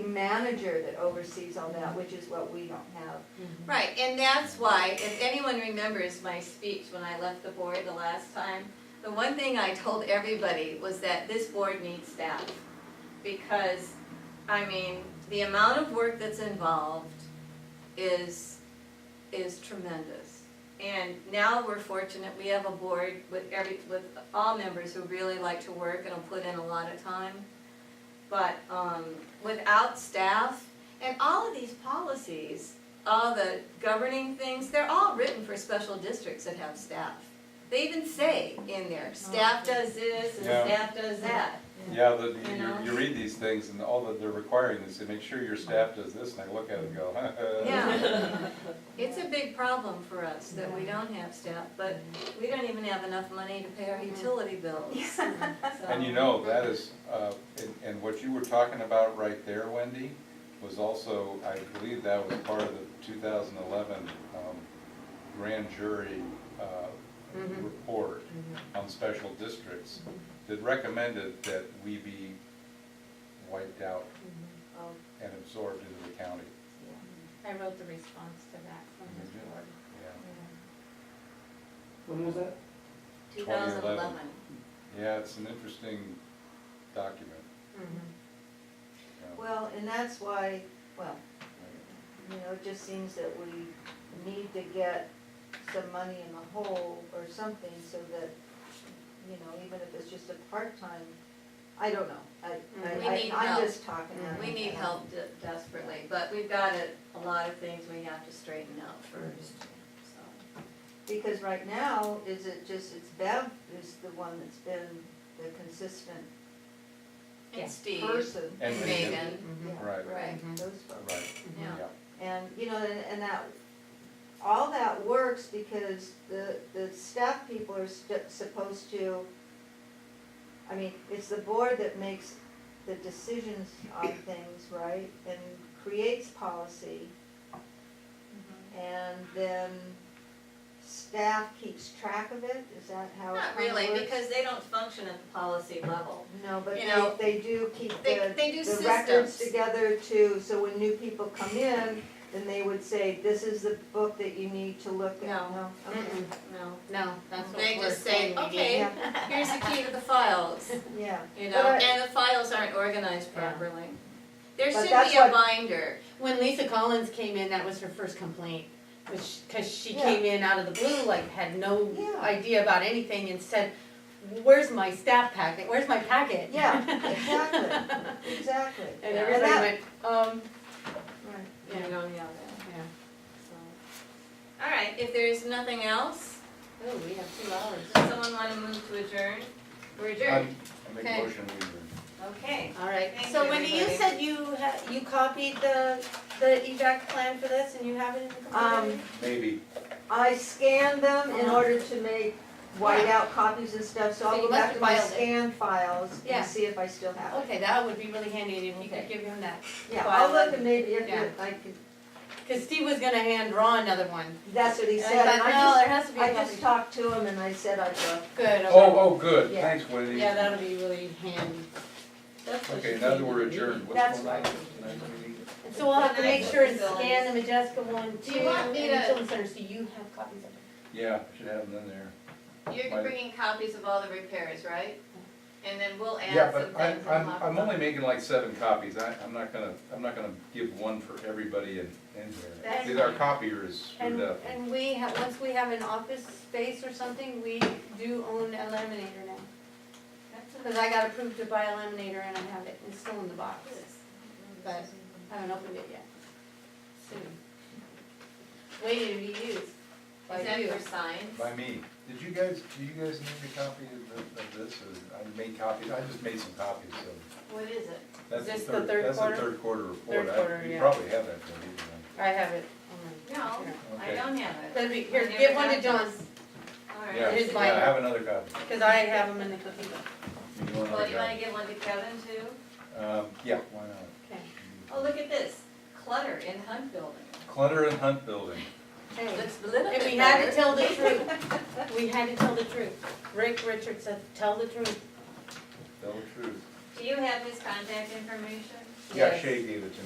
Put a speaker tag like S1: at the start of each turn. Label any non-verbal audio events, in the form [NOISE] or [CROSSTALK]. S1: manager that oversees all that, which is what we don't have.
S2: Right, and that's why, if anyone remembers my speech when I left the board the last time, the one thing I told everybody was that this board needs staff. Because, I mean, the amount of work that's involved is, is tremendous. And now we're fortunate, we have a board with every, with all members who really like to work and will put in a lot of time. But, um, without staff, and all of these policies, all the governing things, they're all written for special districts that have staff. They even say in there, staff does this and
S3: Yeah.
S2: staff does that.
S3: Yeah, the, you-
S2: You
S3: you,
S2: know?
S3: you read these things and all that they're requiring is to make sure your staff does this, and I look at it and go, [LAUGHS]
S2: Yeah. It's a big problem for us that we don't have staff, but we don't even have enough money to pay our utility bills. So-
S3: And you know, that is, uh, and, and what you were talking about right there, Wendy, was also, I believe that was part of the two thousand eleven, um, grand jury, uh,
S2: Mhm.
S3: report on special districts that recommended that we be wiped out
S1: Um,
S2: Oh,
S3: and absorbed into the county.
S4: I wrote the response to that from this board.
S3: Yeah,
S5: When was that?
S2: 2011.
S3: yeah, it's an interesting document. yeah.
S1: Well, and that's why, well, you know, it just seems that we need to get some money in the hole or something so that, you know, even if it's just a part-time, I don't know. I,
S2: We
S1: Mm-hmm. I,
S2: need
S1: I- I'm
S2: help.
S1: just talking. out
S2: We
S1: of
S2: need
S1: my-
S2: help de- desperately, but we've got a, a lot of things we have to straighten out first, so.
S1: Because right now, is it just, it's Bev is the one that's been the consistent
S2: And Steve,
S1: person.
S3: And
S2: and
S3: Megan.
S2: Megan,
S1: Yeah,
S3: Right,
S2: right,
S1: Those folks.
S3: Uh, right,
S2: yeah.
S3: yeah.
S1: And, you know, and, and that, all that works because the, the staff people are st- supposed to, I mean, it's the board that makes the decisions on things, right? And creates policy,
S2: Mm-hmm.
S1: and then staff keeps track of it, is that how it
S2: Not
S1: kinda
S2: really,
S1: works?
S2: because they don't function at the policy level.
S1: No, but
S2: you know,
S1: they, they do keep
S2: They,
S1: the,
S2: they do
S1: the records
S2: systems.
S1: together too, so when new people come in, then they would say, this is the book that you need to look at.
S2: No.
S1: okay.
S4: Mm-mm.
S2: No,
S4: No, that's what
S2: they
S4: we're
S2: just say,
S4: saying. we
S2: okay,
S4: did.
S2: here's the key to the files,
S1: Yeah,
S2: you
S1: But
S2: know,
S1: I-
S2: and the files aren't organized
S4: Yeah.
S2: properly. There
S1: But
S2: should
S1: that's
S2: be a
S1: what-
S2: binder,
S4: When Lisa Collins came in, that was her first complaint, which, cause she
S1: Yeah.
S4: came in out of the blue, like had no
S1: Yeah.
S4: idea about anything and said, where's my staff packet, where's my packet? [LAUGHS]
S1: yeah, exactly, exactly.
S4: And
S1: And that-
S4: everybody went, um,
S1: right.
S2: you
S4: yeah,
S2: don't have that,
S4: yeah.
S2: so. All right, if there's nothing else,
S4: Oh, we have two hours.
S2: does someone wanna move to adjourn? We're
S3: I
S2: adjourned,
S3: make
S2: Okay.
S3: motion we adjourn.
S2: okay.
S4: All right,
S2: Thank
S4: so
S2: you,
S4: Wendy, you
S2: everybody.
S4: said you ha you copied the, the evac plan for this and you have it in the computer?
S1: Um,
S3: Maybe.
S1: I scanned them in order to make whiteout copies and stuff, so
S4: So
S1: I'll
S4: you
S1: go
S4: must
S1: back
S4: have
S1: to my
S4: filed it.
S1: scan files
S4: Yeah.
S1: and see if I still have it.
S4: Okay, that would be really handy if you
S1: Okay.
S4: could give him that,
S1: Yeah,
S4: File
S1: I'll look
S4: it.
S1: and maybe if
S4: Yeah.
S1: it- I could,
S4: cause Steve was gonna hand Raw another one.
S1: that's what he
S4: And I
S1: said, and
S4: thought, no,
S1: I
S4: there has to
S1: just,
S4: be a
S1: I just
S4: copy.
S1: talked to him and I said I'd go.
S4: Good,
S3: Oh,
S4: okay,
S3: oh, good,
S1: Yeah.
S3: thanks, Wendy.
S4: yeah, that'll be really handy. That's what
S3: Okay,
S4: she
S3: now that
S4: said.
S3: we're adjourned,
S1: That's
S3: what's going on? Tonight's meeting?
S4: And so we'll have to make sure and scan the Majeska one
S6: Do
S4: too,
S6: you want
S4: and
S6: me
S4: the
S6: to-
S4: children's centers, do you have copies of it?
S3: Yeah, should have them in there.
S2: You're
S3: Mine-
S2: bringing copies of all the repairs, right? And then we'll
S3: Yeah,
S2: add some
S3: but I'm,
S2: things.
S3: I'm, I'm only making like seven copies, I, I'm not gonna, I'm not gonna give one for everybody in, in here.
S4: That's
S3: Because our
S4: fine.
S3: copier is
S4: And,
S3: screwed up.
S4: and we have, once we have an office space or something, we do own a laminator now. Cause I got approved to buy a laminator and I have it, it's still in the box, but I haven't opened it yet. Soon. Waiting to be used by
S2: Is that
S4: you.
S2: for signs?
S3: By me. Did you guys, do you guys need a copy of, the- of this, or, I made copies, I just made some copies, so.
S2: What is it?
S3: That's
S4: this the third quarter?
S3: That's the third quarter report,
S4: quarter,
S3: I, you
S4: yeah.
S3: probably have that, don't you?
S4: I have it.
S2: No,
S4: Oh.
S2: I
S3: Okay.
S2: don't have it.
S4: That'd be, here,
S2: I never
S4: give one to
S2: got
S4: John,
S2: All right.
S3: Yeah,
S4: It is
S3: yeah, I
S4: mine.
S3: have another copy.
S4: cause I have them in the cookie book.
S3: You do another
S2: Well, do you wanna
S3: copy.
S2: give one to Kevin too?
S3: Um, yeah, why not?
S4: Okay.
S2: Oh, look at this, clutter in Hunt Building.
S3: Clutter and Hunt Building.
S4: Hey,
S2: Looks a little
S4: if
S2: bit
S4: [LAUGHS] we had to
S2: better.
S4: [LAUGHS] tell the truth, we had to tell the truth. Rick Richards said, tell the truth.
S3: Tell the truth.
S2: Do you have his contact information?
S3: Yeah,
S4: Yes.
S3: Shay gave it to me.